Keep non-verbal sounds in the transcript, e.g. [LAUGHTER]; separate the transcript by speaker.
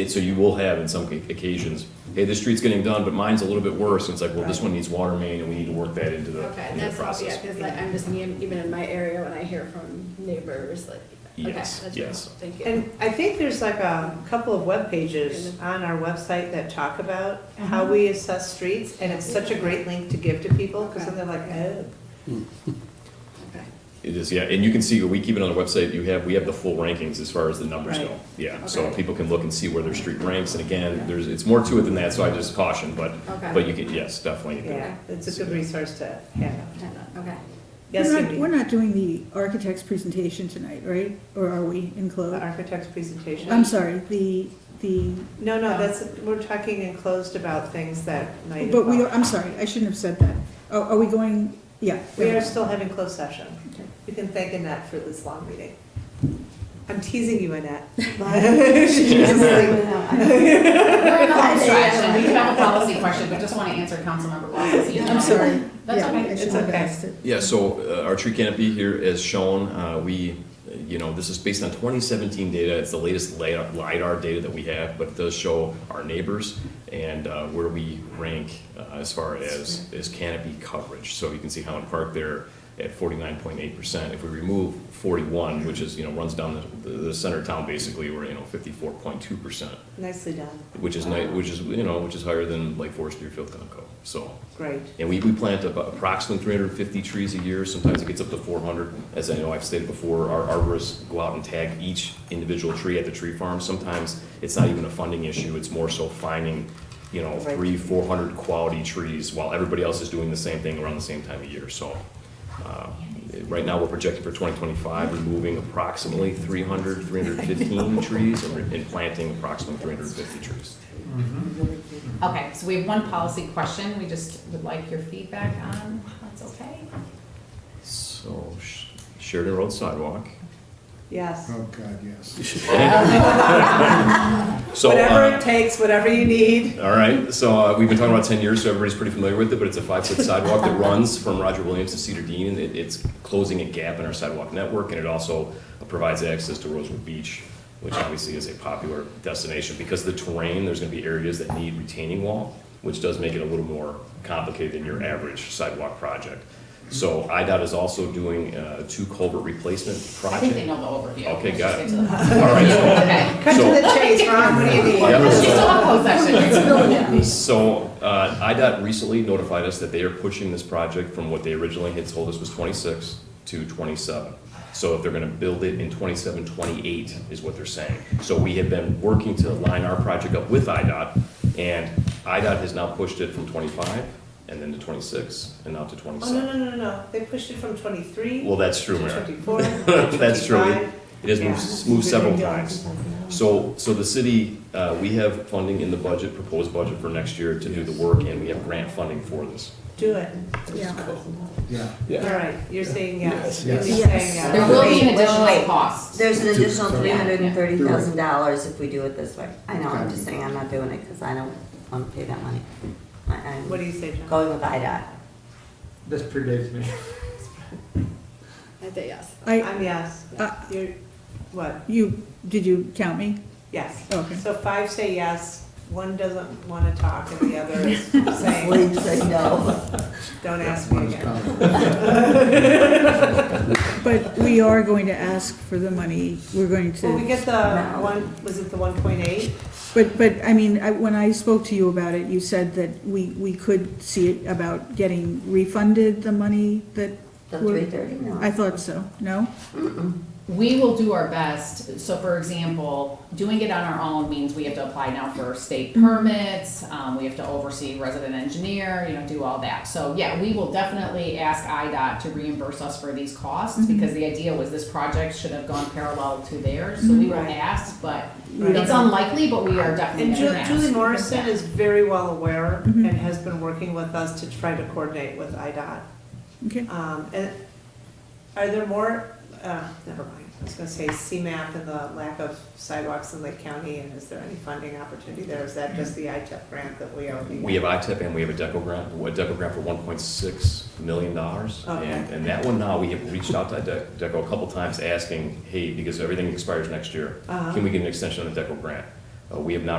Speaker 1: And so you will have in some occasions, hey, this street's getting done, but mine's a little bit worse, and it's like, well, this one needs water main, and we need to work that into the,
Speaker 2: Okay,
Speaker 1: into the
Speaker 2: that's all, yeah,
Speaker 1: process.
Speaker 2: because like, I'm just, even even in my area, when I hear from neighbors, like, okay,
Speaker 1: Yes,
Speaker 2: that's really
Speaker 1: yes.
Speaker 2: helpful, thank you.
Speaker 3: And I think there's like a couple of web pages on our website that talk about
Speaker 4: Uh-huh.
Speaker 3: how we assess streets, and it's such a great link to give to people, because then they're like, oh.
Speaker 2: Okay.
Speaker 1: It is, yeah, and you can see, we keep it on the website, you have, we have the full rankings as far as the numbers
Speaker 3: Right.
Speaker 1: go. Yeah, so
Speaker 2: Okay.
Speaker 1: people can look and see where their street ranks, and again, there's, it's more to it than that, so I just caution, but,
Speaker 2: Okay.
Speaker 1: but you can, yes, definitely. you can-
Speaker 3: "Oh, Yeah, it's a good resource to have.
Speaker 2: Okay.
Speaker 3: Yes,
Speaker 4: We're not,
Speaker 3: Cindy?
Speaker 4: we're not doing the architect's presentation tonight, right? Or are we in
Speaker 3: The
Speaker 4: close?
Speaker 3: architect's presentation.
Speaker 4: I'm sorry, Oh. the, the,
Speaker 3: No, no, that's, we're talking enclosed about things that might.
Speaker 4: but we, are-
Speaker 3: involve-
Speaker 4: I'm sorry, I shouldn't have said that. Are, are we going, yeah.
Speaker 3: We are still having closed session.
Speaker 4: Okay.
Speaker 3: You can thank Annette for this long meeting. I'm teasing you,
Speaker 4: [LAUGHS]
Speaker 3: Annette. [LAUGHS]
Speaker 5: [LAUGHS] We're in a hot stretch, and we have a policy question, but just want to answer Councilmember Wallace's.
Speaker 4: I'm sorry.
Speaker 5: That's
Speaker 4: Yeah,
Speaker 5: okay.
Speaker 4: I should
Speaker 3: It's
Speaker 4: have
Speaker 3: okay.
Speaker 4: asked it.
Speaker 1: Yeah, so uh, our tree canopy here as shown, uh, we, uh, you know, this is based on 2017 data. It's the latest LiDAR LiDAR data that we have, but it does show our neighbors and uh, where we rank uh, as far as, as canopy coverage. So you can see Highland Park there at 49.8%. If we remove 41, which is, you know, runs down the, the- the center of town basically, we're, you know, 54.2%,
Speaker 3: Nicely done,
Speaker 1: which is nice, which is, you know, which is higher than like Forest Deerfield, Conoco, so.
Speaker 3: great.
Speaker 1: And we, we plant about approximately 350 trees a year, sometimes it gets up to 400. As I know I've stated before, our arborists go out and tag each individual tree at the tree farm. Sometimes it's not even a funding issue, it's more so finding, you know,
Speaker 3: Right.
Speaker 1: three, 400 quality trees while everybody else is doing the same thing around the same time of year, so. uh, Right now, we're projecting for 2025, removing approximately 300, 315 trees and re- and planting approximately 350 trees.
Speaker 6: Mm-hmm.
Speaker 5: Okay, so we have one policy question we just would like your feedback on, if that's okay?
Speaker 1: So Sh- Sheridan Road sidewalk.
Speaker 3: Yes.
Speaker 7: Oh, God, yes.
Speaker 1: So,
Speaker 3: Whatever it
Speaker 1: uh,
Speaker 3: takes, whatever you need.
Speaker 1: all right, so uh, we've been talking about 10 years, so everybody's pretty familiar with it, but it's a five-foot sidewalk that runs from Roger Williams to Cedar Dean, and it- it's closing a gap in our sidewalk network, and it also provides access to Rosewood Beach, which obviously is a popular destination, because of the terrain, there's gonna be areas that need retaining wall, which does make it a little more complicated than your average sidewalk project. So IDOT is also doing uh, two culvert replacement
Speaker 5: I
Speaker 1: project.
Speaker 5: think they know the overview.
Speaker 1: Okay,
Speaker 5: Let's
Speaker 1: got
Speaker 5: just
Speaker 1: it.
Speaker 5: get to the policy.
Speaker 1: All right, so-
Speaker 5: Okay.
Speaker 3: Cut to
Speaker 1: So-
Speaker 3: the chase, Ron, what do you need?
Speaker 1: [LAUGHS] Yeah.
Speaker 5: Let's just have a closed session.
Speaker 1: [LAUGHS] So, uh, IDOT recently notified us that they are pushing this project from what they originally had told us was twenty-six to twenty-seven. So if they're gonna build it in 27, 28 is what they're saying. So we have been working to line our project up with IDOT, and IDOT has now pushed it from twenty-five, and then to twenty-six, and now to
Speaker 3: Oh, no,
Speaker 1: twenty-seven.
Speaker 3: no, no, no, no. They pushed it from twenty-three
Speaker 1: Well,
Speaker 3: to
Speaker 1: that's true, Mayor.
Speaker 3: twenty-four.
Speaker 1: [LAUGHS] That's true. It-
Speaker 3: 25.
Speaker 1: It has moved, moved several times.
Speaker 3: Yes.
Speaker 1: So, so the city, uh, we have funding in the budget, proposed budget for next year to do the work, and we have grant funding for this.
Speaker 3: Do it.
Speaker 4: Yeah.
Speaker 7: Yeah.
Speaker 3: All right, you're saying yes.
Speaker 7: Yes.
Speaker 3: You're saying
Speaker 8: Yes.
Speaker 3: yes.
Speaker 5: There will be an
Speaker 8: Wait, wait,
Speaker 5: additional
Speaker 8: wait.
Speaker 5: cost.
Speaker 8: There's an additional
Speaker 7: Sorry.
Speaker 8: three hundred and thirty thousand dollars if we do it this way. I know, I'm
Speaker 7: Okay.
Speaker 8: just saying I'm not doing it because I don't want to pay that money. I- I'm
Speaker 3: What do you say, John?
Speaker 8: going with IDOT.
Speaker 6: This predates me.
Speaker 2: I say yes.
Speaker 4: I,
Speaker 3: I'm yes.
Speaker 4: Uh,
Speaker 3: You're, what?
Speaker 4: you, did you count me? Oh,
Speaker 3: Yes.
Speaker 4: Okay.
Speaker 3: So five say yes, one doesn't want to talk, and the other is saying,
Speaker 8: Please say
Speaker 3: [LAUGHS]
Speaker 8: no.
Speaker 3: don't ask
Speaker 7: One
Speaker 3: me
Speaker 7: is
Speaker 3: again.
Speaker 7: common.
Speaker 4: But we are going to ask for the money, we're going to.
Speaker 3: Well, we get the one, was it the one point eight?
Speaker 4: But, but, I mean, I, when I spoke to you about it, you said that we, we could see it about getting refunded the money that,
Speaker 8: The three thirty, no.
Speaker 4: I thought so, no?
Speaker 5: We will do our best, so for example, doing it on our own means we have to apply now for state
Speaker 3: Mm-hmm.
Speaker 5: permits, um, we have to oversee resident engineer, you know, do all that. So, yeah, we will definitely ask IDOT to reimburse us for these
Speaker 3: Mm-hmm.
Speaker 5: costs, because the idea was this project should have gone parallel to theirs, so we will
Speaker 3: Mhm. Right.
Speaker 5: ask, but
Speaker 3: Right.
Speaker 5: it's unlikely, but we are definitely
Speaker 3: And Ju-
Speaker 5: gonna ask.
Speaker 3: Julie Morrison is very well aware and
Speaker 4: Mhm.
Speaker 3: has been working with us to try to coordinate with IDOT.
Speaker 4: Okay,
Speaker 3: Um, and are there more, uh, never mind, I was gonna say CMAP and the lack of sidewalks in Lake County, and is there any funding opportunity there? Is that just the ITEP grant that we already?
Speaker 1: We have ITIP and we have a DECO grant, a DECO grant for one point six million dollars.
Speaker 3: Okay.
Speaker 1: And, and that one now, we have reached out to De- DECO a couple times asking, hey, because everything expires next year,
Speaker 3: Uh-huh.
Speaker 1: can we get an extension on the DECO grant? Uh, We have not